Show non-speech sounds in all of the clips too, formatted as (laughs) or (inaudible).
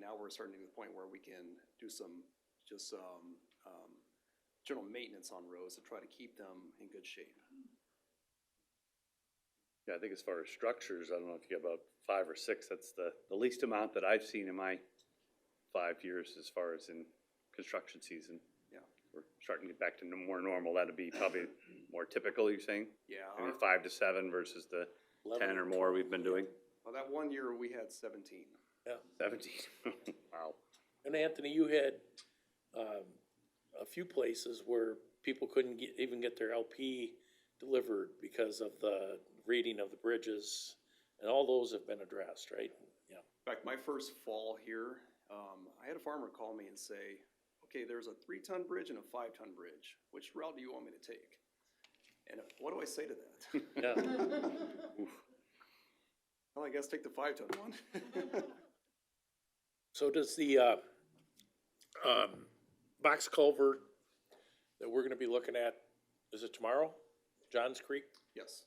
now we're starting to get to the point where we can do some, just some, um, general maintenance on roads to try to keep them in good shape. Yeah, I think as far as structures, I don't know if you have about five or six, that's the, the least amount that I've seen in my five years as far as in construction season. Yeah. We're starting to get back to no- more normal, that'd be probably more typical, you're saying? Yeah, I mean, our- five to seven versus the ten or more we've been doing? well, that one year we had seventeen. Seventeen, (laughs) wow. And Anthony, you had, um, a few places where people couldn't get, even get their LP delivered because of the reading of the bridges, and all those have been addressed, (laughs) right? Yeah, In fact, my first fall here, um, I had a farmer call me and say, okay, there's a three-ton bridge and a five-ton bridge. Which route do you want me to take? And what do I say to that? (laughs) yeah, Well, I guess take the five-ton one. (laughs) so does the, uh, um, box culvert that we're gonna be looking at, is it tomorrow? Johns Creek, Yes.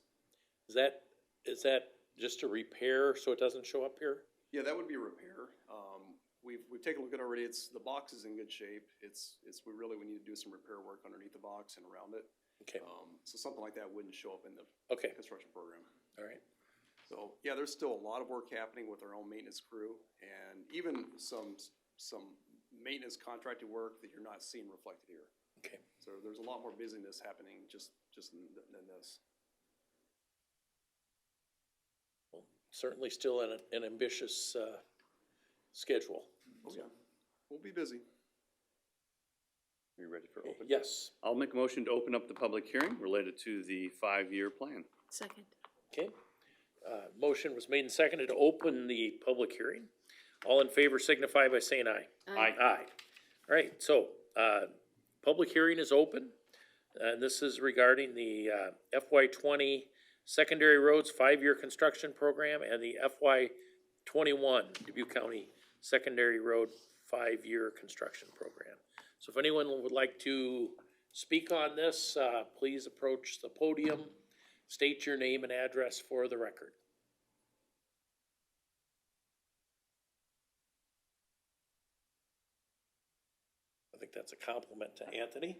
is that, is that just to repair so it doesn't show up here? Yeah, that would be a repair. Um, we've, we've taken a look at it already. It's, the box is in good shape. It's, it's, we really, we need to do some repair work underneath the box and around it. Okay, Um, so something like that wouldn't show up in the okay, construction program. all right. So, yeah, there's still a lot of work happening with our own maintenance crew and even some, some maintenance contracted work that you're not seeing reflected here. Okay. So there's a lot more busyness happening just, just than, than this. Certainly still an, an ambitious, uh, schedule. Oh, yeah. We'll be busy. Are you ready for open? Yes, I'll make a motion to open up the public hearing related to the five-year plan. Second. okay. Uh, motion was made and seconded to open the public hearing. All in favor signify by saying aye. Aye. Aye. All right, so, uh, public hearing is open. Uh, And this is regarding the, uh, FY twenty secondary roads five-year construction program and the FY twenty-one Dubuque County secondary road five-year construction program. So if anyone would like to speak on this, uh, please approach the podium, state your name and address for the record. I think that's a compliment to Anthony.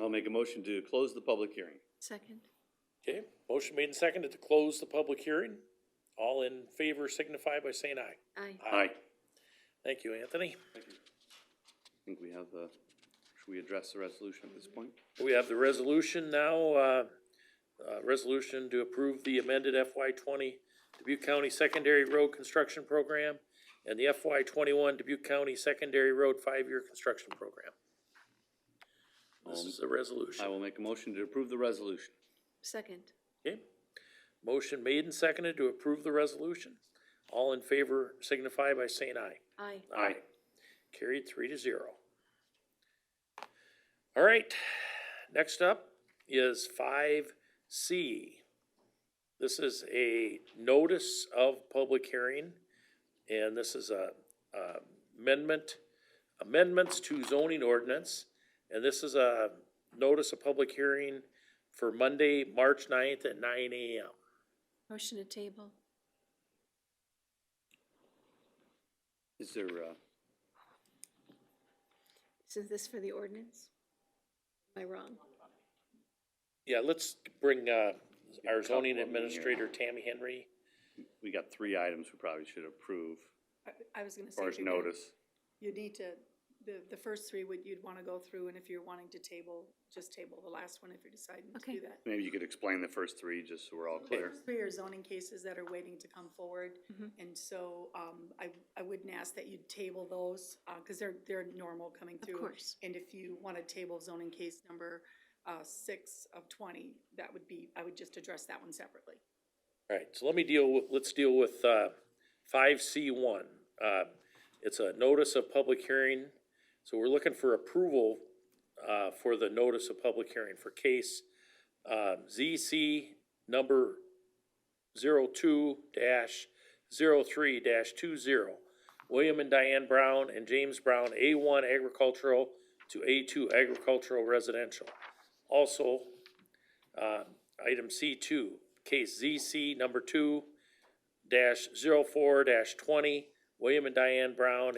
I'll make a motion to close the public hearing. Second. Okay, motion made and seconded to close the public hearing. All in favor signify by saying aye. Aye. Aye. Thank you, Anthony. I think we have the, should we address the resolution at this point? We have the resolution now, uh, uh, resolution to approve the amended FY twenty Dubuque County Secondary Road Construction Program and the FY twenty-one Dubuque County Secondary Road Five-Year Construction Program. This is the Um, I resolution. will make a motion to approve the resolution. Second. Okay. Motion made and seconded to approve the resolution. All in favor signify by saying aye. Aye. Aye. Carried three to zero. All right, next up is five C. This is a notice of public hearing, and this is a uh, amendment, amendments to zoning ordinance. And this is a notice of public hearing for Monday, March 9th at nine AM. Motion to table. Is there, uh, Is this for the ordinance? Am I wrong? Yeah, let's bring uh, our zoning Couple of them here. administrator, Tammy Henry. we got three items we probably should approve I, I was gonna as say. far as you're gonna- notice. You need to, the, the first three would, you'd wanna go through, and if you're wanting to table, just table the last one if you're deciding to Okay. do that. Maybe you could explain the first three, just so we're all clear. Three are zoning cases that are waiting to come forward, Mm-hmm. and so, um, I, I wouldn't ask that you table those, uh, cause they're, they're normal coming Of through. course. And if you wanna table zoning case number, uh, six of twenty, that would be, I would just address that one separately. All right, so let me deal with, let's deal with, uh, five C one. Uh, it's a notice of public hearing, so we're looking for approval, uh, for the notice of public hearing for case, uh, ZC number zero-two dash zero-three dash two-zero. William and Diane Brown and James Brown, A one agricultural to A two agricultural residential. Also, uh, item C two, case ZC number two dash zero four dash twenty, William and Diane Brown